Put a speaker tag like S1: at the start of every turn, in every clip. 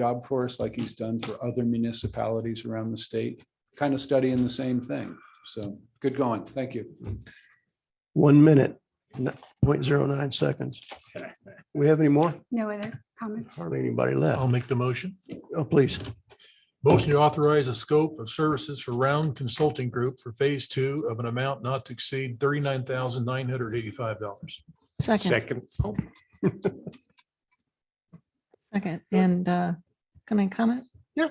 S1: job for us like he's done for other municipalities around the state, kind of studying the same thing. So good going. Thank you.
S2: One minute, n- point zero nine seconds. We have any more?
S3: No other comments?
S2: Hardly anybody left.
S4: I'll make the motion.
S2: Oh, please.
S4: Motion to authorize a scope of services for Round Consulting Group for Phase Two of an amount not to exceed thirty-nine thousand nine hundred eighty-five dollars.
S5: Second,
S6: Second. Oh.
S5: second, and uh, can I comment?
S6: Yeah.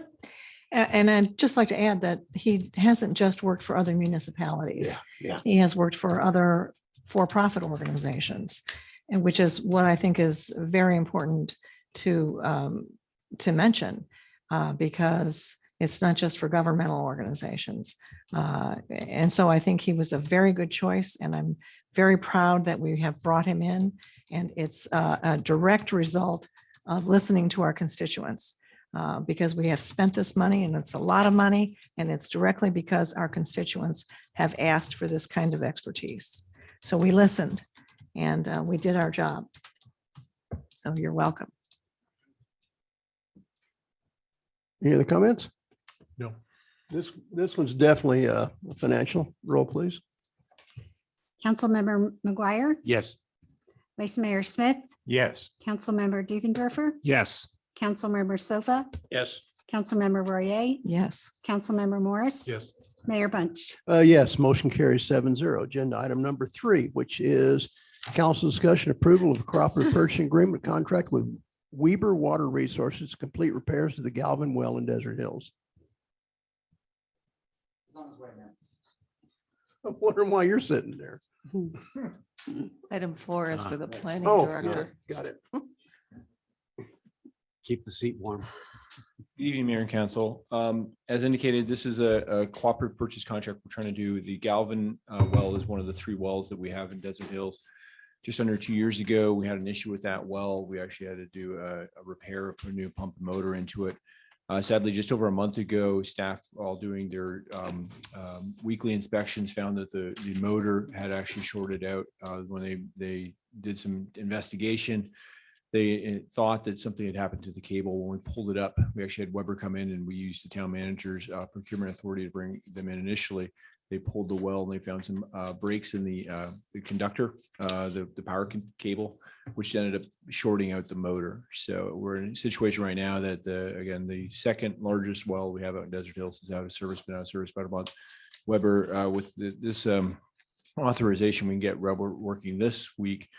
S5: A- And I'd just like to add that he hasn't just worked for other municipalities.
S6: yeah.
S5: He has worked for other for-profit organizations, and which is what I think is very important to um, to mention, uh, because it's not just for governmental organizations. Uh, And so I think he was a very good choice, and I'm very proud that we have brought him in. And it's uh, a direct result of listening to our constituents. uh, Because we have spent this money and it's a lot of money and it's directly because our constituents have asked for this kind of expertise. So we listened and uh, we did our job. So you're welcome.
S2: Any other comments?
S4: No.
S2: This, this one's definitely uh financial. Roll, please.
S3: Councilmember McGuire,
S6: Yes.
S3: Vice Mayor Smith,
S6: Yes.
S3: Councilmember Divendorfer,
S6: Yes.
S3: Councilmember Sofa,
S6: Yes.
S3: Councilmember Royer,
S5: Yes.
S3: Councilmember Morris.
S4: Yes.
S3: Mayor Bunch.
S2: Uh, yes, motion carries seven zero. Agenda item number three, which is council discussion approval of cooperative purchasing agreement contract with Weber Water Resources, to complete repairs to the Galvin Well in Desert Hills. I'm wondering why you're sitting there.
S7: Item four is for the planning
S2: Oh,
S7: director.
S2: Got it.
S6: Keep the seat warm.
S8: Good evening, Mayor and Council. Um, As indicated, this is a a cooperative purchase contract we're trying to do. The Galvin uh, well is one of the three wells that we have in Desert Hills. Just under two years ago, we had an issue with that well. We actually had to do a a repair, put a new pump and motor into it. Uh, Sadly, just over a month ago, staff all doing their um, um, weekly inspections found that the the motor had actually shorted out uh, when they they did some investigation they uh, thought that something had happened to the cable. When we pulled it up, we actually had Weber come in and we used the town manager's uh, procurement authority to bring them in initially. They pulled the well and they found some uh, breaks in the uh, the conductor, uh, the the power con- cable, which ended up shorting out the motor. So we're in a situation right now that the, again, the second largest well we have out in Desert Hills is out of service, been out of service about a month. Weber uh, with th- this um, authorization, we can get Weber working this week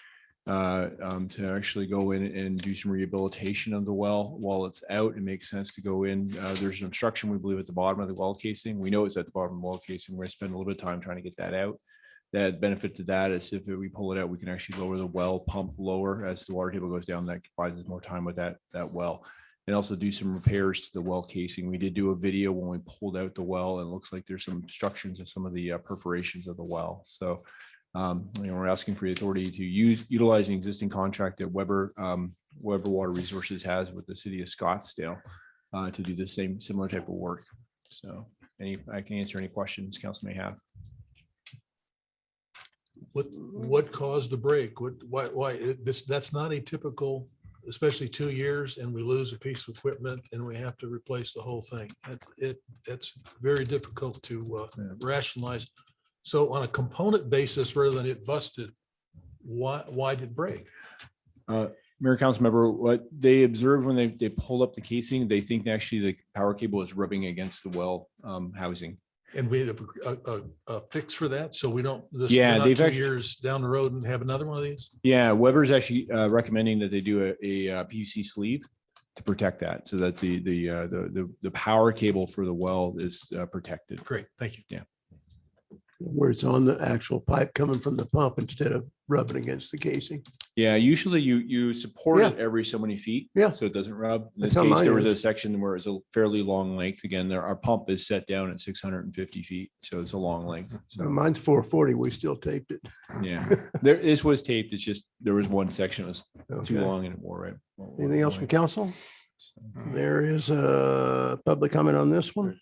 S8: uh, um, to actually go in and do some rehabilitation of the well while it's out. It makes sense to go in. Uh, there's an obstruction, we believe, at the bottom of the well casing. We know it's at the bottom of the well casing. We're gonna spend a little bit of time trying to get that out. That benefit to that is if we pull it out, we can actually lower the well pump lower as the water table goes down. That buys us more time with that, that well. And also do some repairs to the well casing. We did do a video when we pulled out the well and it looks like there's some obstructions of some of the uh, perforations of the well. So um, you know, we're asking for the authority to use, utilize an existing contract that Weber, um, Weber Water Resources has with the city of Scottsdale uh, to do the same, similar type of work. So any, I can answer any questions council may have.
S4: What, what caused the break? What, why, why, it- this, that's not a typical, especially two years and we lose a piece of equipment and we have to replace the whole thing. It, it, that's very difficult to uh,
S8: Yeah.
S4: rationalize. So on a component basis, rather than it busted, why, why did it break?
S8: Mayor Council Member, what they observed when they, they pull up the casing, they think actually the power cable is rubbing against the well um, housing.
S4: And we had a, a, a- a fix for that, so we don't, this,
S8: Yeah,
S4: we're not
S8: they've
S4: two
S8: actu-
S4: years down the road and have another one of these?
S8: Yeah, Weber's actually uh, recommending that they do a, a uh, PVC sleeve to protect that so that the, the, uh, the, the- the power cable for the well is uh, protected.
S4: Great, thank you.
S2: Where it's on the actual pipe coming from the pump instead of rubbing against the casing.
S8: Yeah, usually you, you support
S2: Yeah.
S8: it every so many feet.
S2: Yeah.
S8: So it doesn't rub. In
S2: That's
S8: this
S2: how
S8: case, there
S2: mine
S8: was a
S2: is.
S8: section where it's a fairly long length. Again, there, our pump is set down at six hundred and fifty feet, so it's a long length.
S2: So
S8: So,
S2: mine's four forty. We still taped it.
S8: yeah, there, this was taped. It's just, there was one section that was too
S2: Okay.
S8: long and it wore right.
S2: Anything else from council? There is a public comment on this one.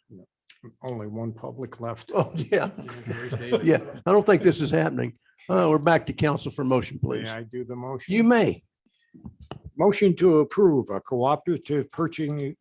S6: Only one public left.
S2: Oh, yeah. Yeah, I don't think this is happening. Uh, we're back to council for motion,
S6: May
S2: please.
S6: I do the motion?
S2: You may.
S6: Motion to approve a cooperative purchasing